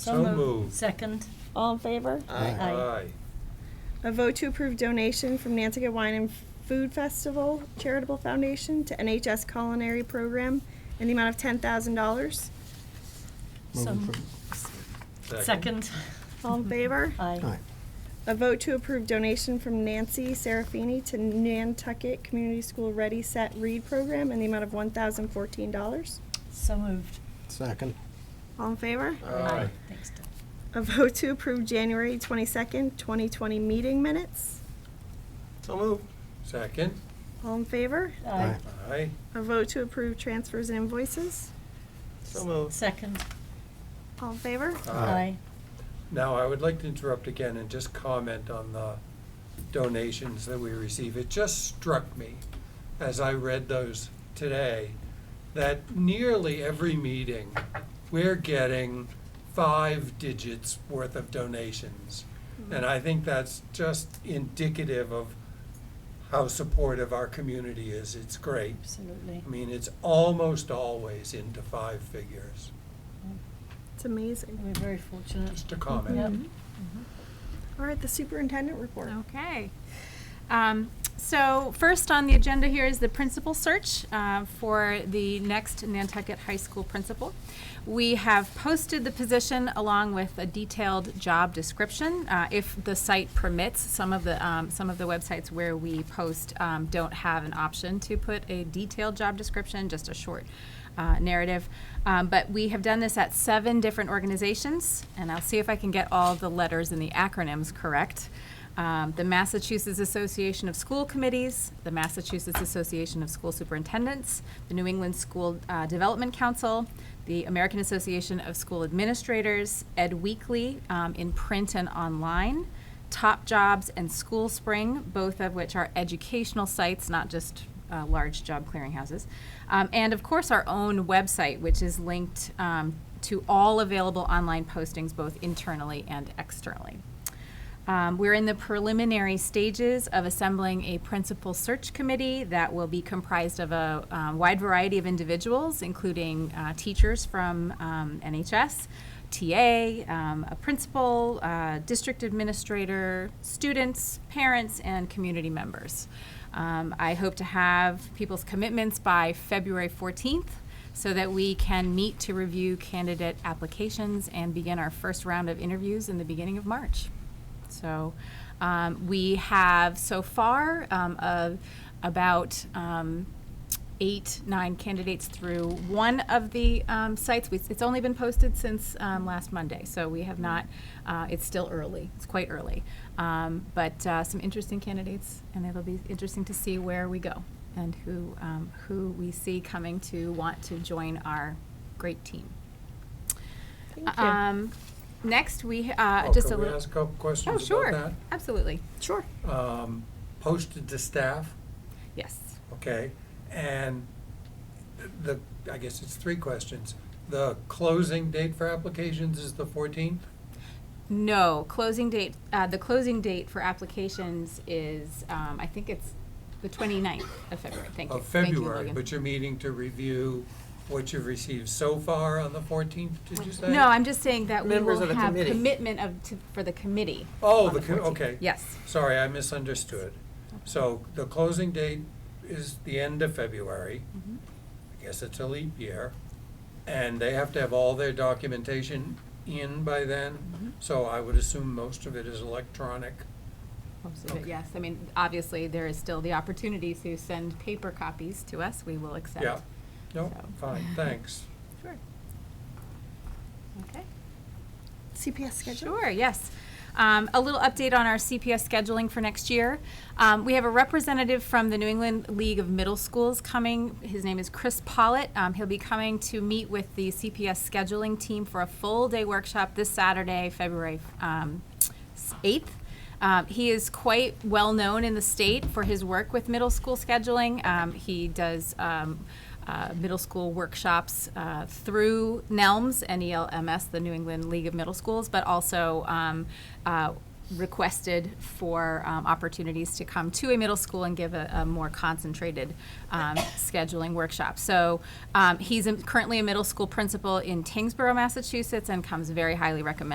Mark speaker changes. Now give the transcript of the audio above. Speaker 1: So moved.
Speaker 2: Second.
Speaker 3: All in favor?
Speaker 2: Aye.
Speaker 3: A vote to approve donation from Nantucket Wine and Food Festival Charitable Foundation to NHS Culinary Program in the amount of ten thousand dollars.
Speaker 2: So
Speaker 4: Move
Speaker 2: Second.
Speaker 3: All in favor?
Speaker 2: Aye.
Speaker 4: Aye.
Speaker 3: A vote to approve donation from Nancy Serafini to Nantucket Community School Ready Set Read Program in the amount of one thousand fourteen dollars.
Speaker 2: So moved.
Speaker 4: Second.
Speaker 3: All in favor?
Speaker 1: Aye.
Speaker 2: Thanks, Deb.
Speaker 3: A vote to approve January twenty-second, twenty twenty meeting minutes.
Speaker 1: So moved. Second.
Speaker 3: All in favor?
Speaker 2: Aye.
Speaker 1: Aye.
Speaker 3: A vote to approve transfers and invoices.
Speaker 1: So moved.
Speaker 2: Second.
Speaker 3: All in favor?
Speaker 1: Aye. Now, I would like to interrupt again and just comment on the donations that we receive. It just struck me as I read those today that nearly every meeting, we're getting five digits worth of donations. And I think that's just indicative of how supportive our community is. It's great.
Speaker 2: Absolutely.
Speaker 1: I mean, it's almost always into five figures.
Speaker 3: It's amazing.
Speaker 2: We're very fortunate.
Speaker 1: Just a comment.
Speaker 2: Yep.
Speaker 3: All right, the superintendent report.
Speaker 5: Okay. Um, So first on the agenda here is the principal search uh, for the next Nantucket High School principal. We have posted the position along with a detailed job description. Uh, If the site permits, some of the, um, some of the websites where we post um, don't have an option to put a detailed job description, just a short uh, narrative. Um, But we have done this at seven different organizations, and I'll see if I can get all the letters and the acronyms correct um, the Massachusetts Association of School Committees, the Massachusetts Association of School Superintendents, the New England School uh, Development Council, the American Association of School Administrators, Ed Weekly um, in print and online, Top Jobs and School Spring, both of which are educational sites, not just uh, large job clearinghouses. Um, and of course, our own website, which is linked um, to all available online postings, both internally and externally. Um, we're in the preliminary stages of assembling a principal search committee that will be comprised of a um, wide variety of individuals, including uh, teachers from um, NHS, TA, um, a principal, uh, district administrator, students, parents, and community members. Um, I hope to have people's commitments by February 14th so that we can meet to review candidate applications and begin our first round of interviews in the beginning of March. So um, we have so far um, a- about um, eight, nine candidates through one of the um, sites. We- It's only been posted since um, last Monday, so we have not, uh, it's still early, it's quite early. Um, But uh, some interesting candidates, and it'll be interesting to see where we go and who, um, who we see coming to want to join our great team.
Speaker 3: Thank you.
Speaker 5: Um, Next, we, uh,
Speaker 1: Oh,
Speaker 5: just a
Speaker 1: can we
Speaker 5: little.
Speaker 1: ask a couple
Speaker 5: Oh,
Speaker 1: questions about
Speaker 5: sure,
Speaker 1: that?
Speaker 5: absolutely,
Speaker 3: Sure.
Speaker 1: Um, Posted to staff,
Speaker 5: yes.
Speaker 1: okay, and the, I guess it's three questions. The closing date for applications is the fourteenth?
Speaker 5: No, closing date, uh, the closing date for applications is, um, I think it's the 29th of February, thank you.
Speaker 1: Of
Speaker 5: Thank you,
Speaker 1: February,
Speaker 5: Logan.
Speaker 1: but you're meeting to review what you've received so far on the fourteenth, did you say?
Speaker 5: No, I'm just saying that we
Speaker 6: Members
Speaker 5: will
Speaker 6: of the
Speaker 5: have
Speaker 6: committee.
Speaker 5: commitment of, to- for the committee.
Speaker 1: Oh,
Speaker 5: on
Speaker 1: the co-
Speaker 5: 14th.
Speaker 1: okay.
Speaker 5: Yes,
Speaker 1: Sorry, I misunderstood. So the closing date is the end of February. I guess it's a leap year. And they have to have all their documentation in by then. So I would assume most of it is electronic.
Speaker 5: most of it, yes. I mean, obviously, there is still the opportunity to send paper copies to us, we will accept.
Speaker 1: Yeah. No,
Speaker 5: So-
Speaker 1: fine, thanks.
Speaker 5: Sure. Okay.
Speaker 3: CPS schedule.
Speaker 5: Sure, yes. Um, a little update on our CPS scheduling for next year. Um, we have a representative from the New England League of Middle Schools coming. His name is Chris Pollitt. Um, he'll be coming to meet with the CPS scheduling team for a full day workshop this Saturday, February um, 8th. Um, he is quite well known in the state for his work with middle school scheduling. Um, he does um, uh, middle school workshops uh, through NELMS, N E L M S, the New England League of Middle Schools, but also um, uh, requested for um, opportunities to come to a middle school and give a, a more concentrated um, scheduling workshop. So um, he's in- currently a middle school principal in Tingsboro, Massachusetts, and comes very highly recommended.